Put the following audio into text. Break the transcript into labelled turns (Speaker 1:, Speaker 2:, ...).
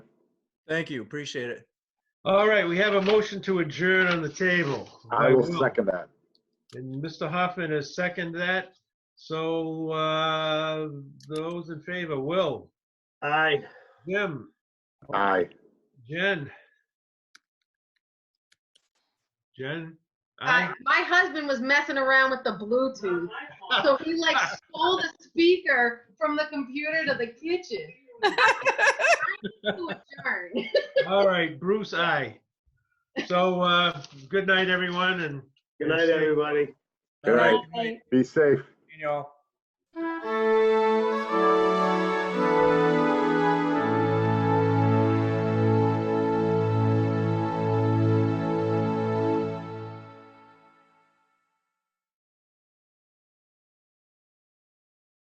Speaker 1: Thank you, appreciate it.
Speaker 2: All right, we have a motion to adjourn on the table.
Speaker 3: I will second that.
Speaker 2: And Mr. Hoffman has seconded that. So uh, those in favor, Will,
Speaker 4: Aye.
Speaker 2: Jim,
Speaker 3: Aye.
Speaker 2: Jen. Jen?
Speaker 5: I, my husband was messing around with the Bluetooth. So he like stole the speaker from the computer to the kitchen. To adjourn.
Speaker 2: All right, Bruce, aye. So uh, good night, everyone, and
Speaker 4: Good night, everybody.
Speaker 3: Good night. Be safe.
Speaker 1: Y'all.